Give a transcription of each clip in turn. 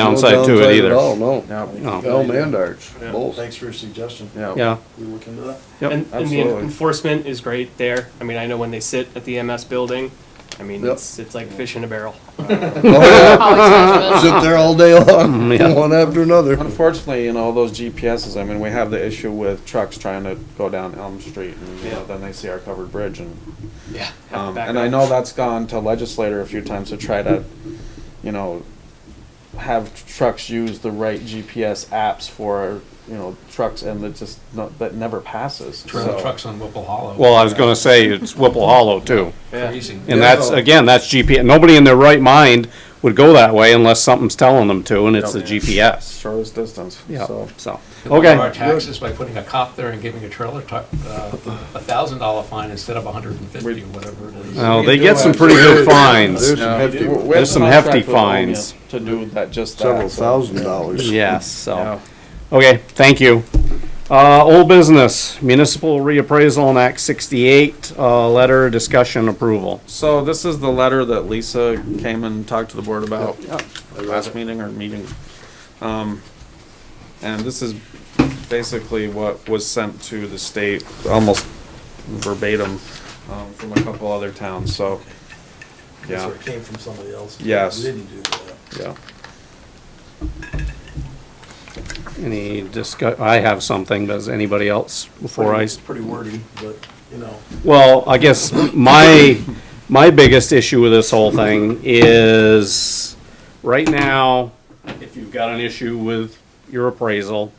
downside to it At all, either. no. Yeah, No, Elm and Arch, Yeah, both. Thanks for your suggestion. yeah. yeah, We look into that. Yep, And, and the absolutely. enforcement is great there. I mean, I know when they sit at the MS building, I mean, Yep. it's, it's like fish in a barrel. Oh, Always yeah. judgment. Sit there all day long, Mm, yeah. one after another. Unfortunately, you know, those GPSs, I mean, we have the issue with trucks trying to go down Elm Street and, you know, Yeah. then they see our covered bridge and, Yeah. um, and I know that's gone to legislator a few times to try to, you know, have trucks use the right GPS apps for, you know, trucks and it just, no- that never passes. So- Trucks on Whipple Hollow. well, I was gonna say, it's Whipple Hollow too. Crazy. And that's, again, that's GPS, nobody in their right mind would go that way unless something's telling them to, and it's the GPS. Shortest distance, Yeah, so. so, lower our okay, taxes by putting a cop there and giving a trailer tu- uh, a thousand dollar fine instead of a hundred and fifty or whatever it is. now, they get some pretty good fines, There's some hefty We're- we're in There's some contract hefty with Omnia fines. To do that, just that. Several so- thousand dollars. yes, so, Yeah. okay, thank you. Uh, old business, municipal reappraisal in Act sixty-eight, uh, letter discussion approval. So this is the letter that Lisa came and talked to the board about last meeting or meeting. Um, and this is basically what was sent to the state, almost verbatim, um, from a couple other towns, so. That's Yeah, where it came from somebody else. Yes. We Didn't do that. yeah. Any discuss, I have something, does anybody else before I It's pretty wordy, but, you know, Well, I guess my, my biggest issue with this whole thing is, right now, if you've got an issue with your appraisal,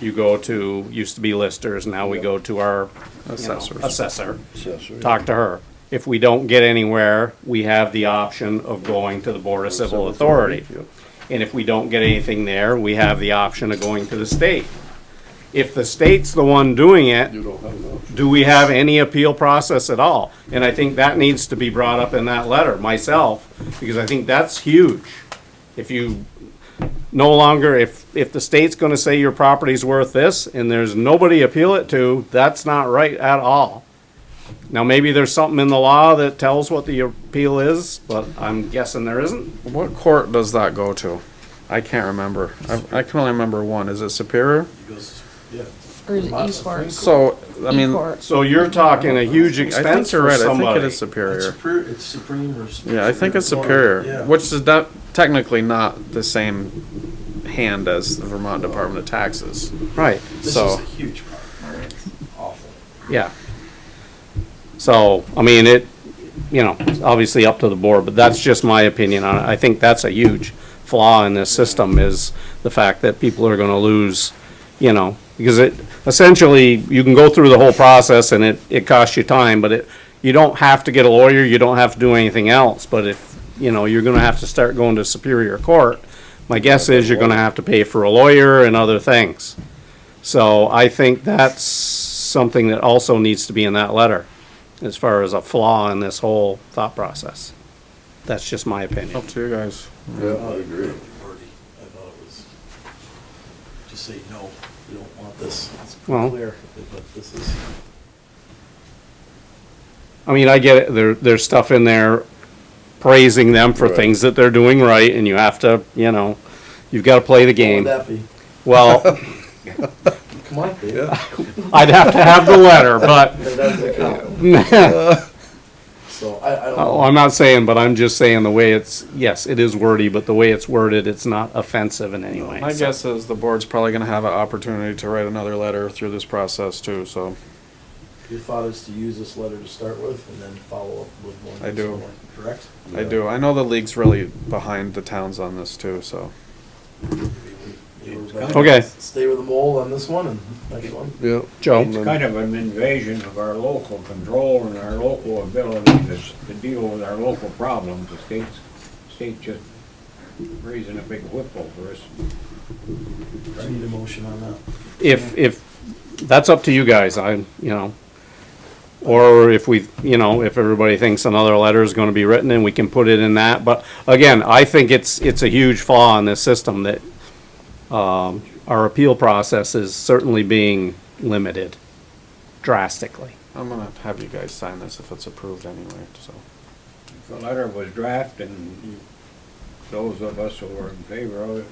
you go to, used to be listers, now we go to our you know, Assessors. Assessor, Yes, sir. talk to her. If we don't get anywhere, we have the option of going to the Board of Civil Authority. And if we don't get anything there, we have the option of going to the state. If the state's the one doing it, You don't have enough. do we have any appeal process at all? And I think that needs to be brought up in that letter myself, because I think that's huge. If you no longer, if, if the state's gonna say your property's worth this and there's nobody appeal it to, that's not right at all. Now, maybe there's something in the law that tells what the appeal is, but I'm guessing there isn't. What court does that go to? I can't remember. I, I can only remember one. Is it Superior? it goes, yeah. Or is it esports? So, I mean, Esports. So you're talking a huge I think expense you're for right. I think it somebody. is It's Superior. superior, it's supreme or. s- Yeah, I think it's superior. Superior, Yeah. which is not, technically not the same hand as the Vermont Department of Taxes. Right, This is so. a huge problem. Awful. Yeah. So, I mean, it, you know, it's obviously up to the board, but that's just my opinion on it. I think that's a huge flaw in this system is the fact that people are gonna lose, you know, because it, essentially, you can go through the whole process and it, it costs you time, but it, you don't have to get a lawyer, you don't have to do anything else, but if, you know, you're gonna have to start going to Superior Court, my guess is you're gonna have to pay for a lawyer and other things. So I think that's something that also needs to be in that letter, as far as a flaw in this whole thought process. That's just my opinion. Up to you guys. Yeah, I I agree. Wordy. I thought it was, just say, no, we don't want this. It's Well- pretty clear, but this is. I mean, I get it, there, there's stuff in there praising them for Right. things that they're doing right, and you have to, you know, you've gotta play the Would game. that be? Well, Come on, Dave. I'd have to have the letter, but, That doesn't count. So I, I don't. oh, I'm not saying, but I'm just saying the way it's, yes, it is wordy, but the way it's worded, it's not offensive in any way. My so. guess is the board's probably gonna have an opportunity to write another letter through this process too, so. Your thought is to use this letter to start with and then follow up with one. I do. more, Correct? I do. I know the league's really behind the towns on this too, so. You were better. Okay. Stay with the mole on this one and next one. Yeah. Joe? And It's then- kind of an invasion of our local control and our local ability to, s- to deal with our local problems. The state's, state just raising a big whip over us. I need a motion on that. if, if, that's up to you guys, I, you know. Or if we, you know, if everybody thinks another letter is gonna be written and we can put it in that, but again, I think it's, it's a huge flaw in this system that, um, our appeal process is certainly being limited drastically. I'm gonna have you guys sign this if it's approved anyway, so. The letter was drafted and those of us who are in favor of it